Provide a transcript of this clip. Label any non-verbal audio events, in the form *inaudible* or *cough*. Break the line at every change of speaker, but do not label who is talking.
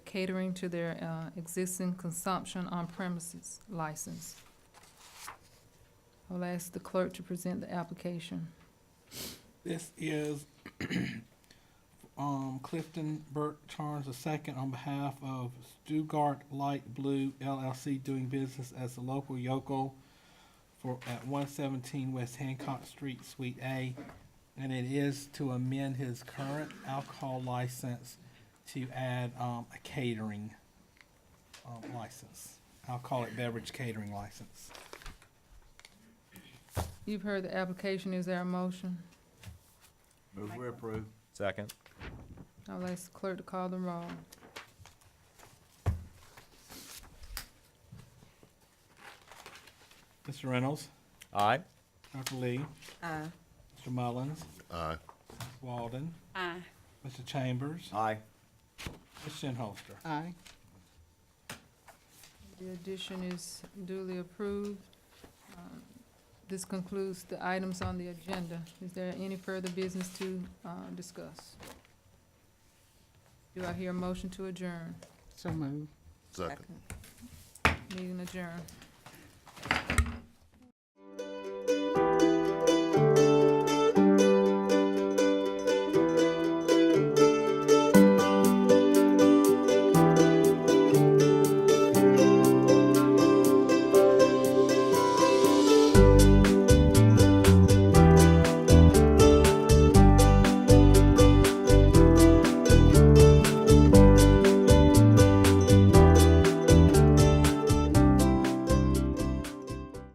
catering to their uh, existing consumption on premises license. I'll ask the clerk to present the application.
This is *clears throat* um, Clifton Burt Charles II on behalf of Stugart Light Blue LLC doing business as the local yokel for, at one seventeen West Hancock Street, Suite A. And it is to amend his current alcohol license to add um, a catering um, license. Alcoholic beverage catering license.
You've heard the application, is there a motion?
Move we approve.
Second.
I'll ask the clerk to call the roll.
Mr. Reynolds,
Aye.
Dr. Lee,
Aye.
Mr. Mullins,
Aye.
Walden,
Aye.
Mr. Chambers,
Aye.
Ms. Shinholster.
Aye.
The addition is duly approved. Um, This concludes the items on the agenda. Is there any further business to uh, discuss? Do I hear a motion to adjourn?
So moved.
Second.
Meeting adjourned.